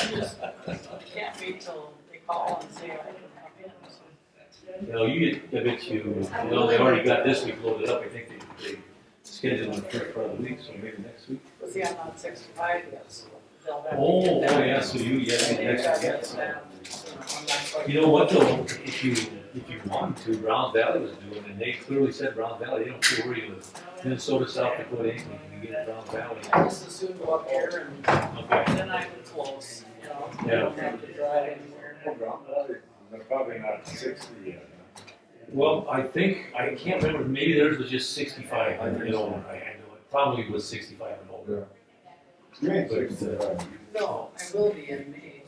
Can't wait till they call and say I can come in, so. No, you get, I bet you, no, they already got this week loaded up, I think they, they scheduled it for part of the week, so maybe next week. But see, I'm on sixty-five yet, so they'll have. to Oh, oh, get that. yeah, so you, yeah, And they've next got week, to yeah, get so. that, so I'm not quite- You know what though, if you, if you want to, Round Valley was doing, it, and they clearly said Round Valley, they don't care where you live. Minnesota, South Dakota, anything, you can get Round Valley. I just assume go up here and Okay. then I'm close, you know, I Yeah. don't have to drive anywhere. They're probably not sixty yet. Well, I think, I can't remember, maybe theirs was just sixty-five and older, I, I know it probably was sixty-five and older. You ain't sixty-five. No, I will be in May.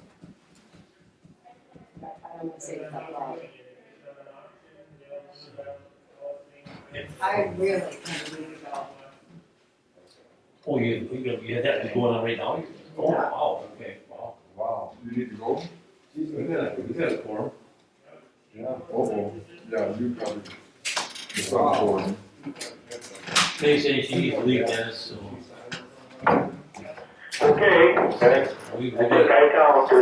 I don't want to say this out loud. Yeah. I really can't believe it all. Oh, you, you, you had that going on right now? Oh, wow, okay, wow. Wow. You need to go? We got, a- we got a quorum. Yeah. Oh, yeah, you probably. They say she needs to leave Dennis, so Okay, I we, we think got, I count as,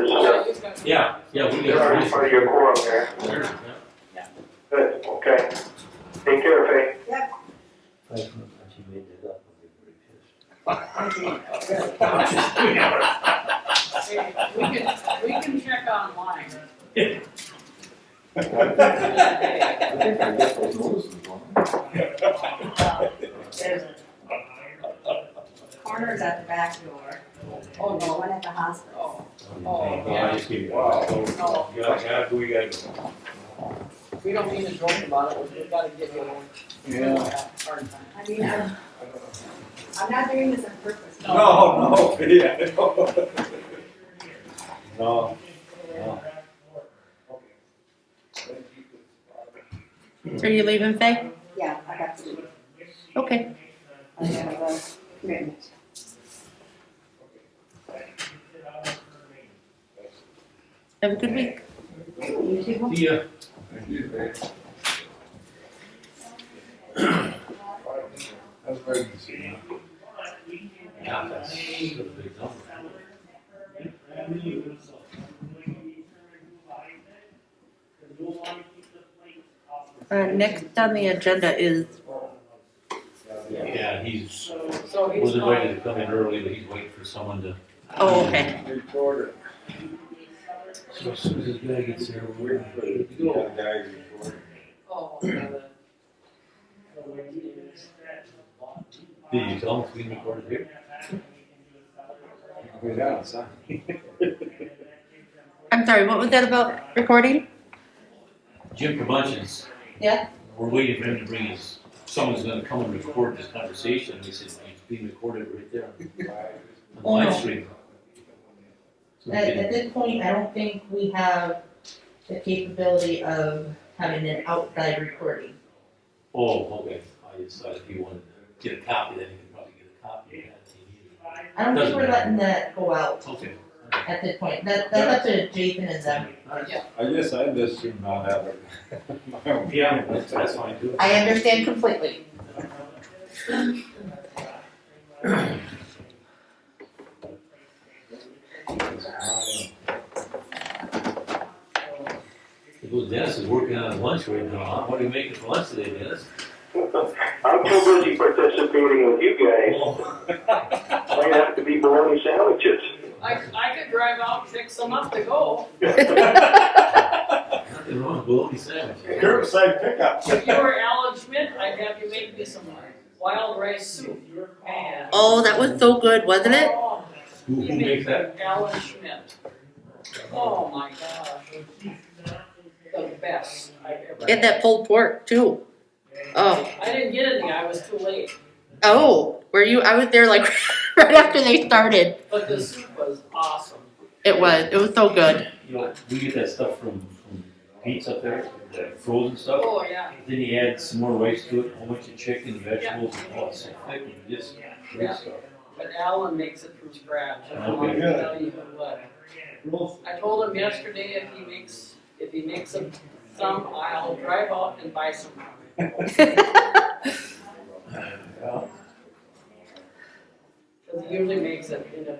uh, yeah, yeah, we got. you're part of your quorum there. Sure, yeah. Good, okay. Take care, Faye. Hey, We can, we can check online. I think I get those notices on. There's Corners at the back door. Oh, no, one at the hospital. Oh, oh, Yeah, I just give you- Wow. No. Yeah, yeah, we got. we don't mean to joke about it, we've got to give you one. Hard time. I mean, I'm, I'm not doing this on purpose. No, no, yeah. No, no. Are you leaving, Faye? Yeah, I got to do it. Okay. I have a commitment. Have a good week. You too. See ya. That's pregnancy. Yeah, that's a big number. Uh, next on the agenda is Yeah, he's, So he's was invited calling, to come in early, but he's waiting for someone to. oh okay. Recorder. So as soon as his guy gets here, we're Wait for the gonna go. guys recorder. oh, yeah, Did you tell him it's being recorded here? Go down, son. I'm sorry. What was that about recording? Jim Promotions. Yeah. We're waiting for him to bring his, someone's gonna come and record this conversation, and he said, it's being recorded right there on the Oh, no. live stream. So we At, can- at this point, I don't think we have the capability of having an outside recording. Oh, okay, I decided if you wanted to get a copy, then you could probably get a copy of that. I don't think Doesn't we're matter. letting that go out Okay. at this point. That, that's up to Jason and them. I guess I just should not have it. Yeah, that's, that's fine too. I understand completely. Well, Dennis is working on lunch right now, huh? What are you making for lunch today, Dennis? I'm too busy participating with you guys. Might have to be bologna sandwiches. I, I could drive out, and pick some up to go, Nothing wrong with bologna sandwich. Curbside pickup. if you were Alan Schmidt, I'd have you make me some wild rice soup, man. Oh, that was so good, wasn't it? Oh, Who, who you makes make that? Alan Schmidt, oh my gosh, the best I've ever. And that pulled pork too. Oh, I didn't get any, I was too late, oh, were you? I was there like right after they started. but the soup was awesome. It was. It was so good. You know, we get that stuff from, from Pete's up there, that frozen stuff. Oh, yeah, Then you add some more rice to it, a whole bunch of chicken, vegetables, and all that stuff. Thick and just great stuff. but Alan makes it from scratch, I don't Okay, want to good. tell you what. I told him yesterday if he makes, if he makes some, some, I'll drive out and buy some. Cause he usually makes it in a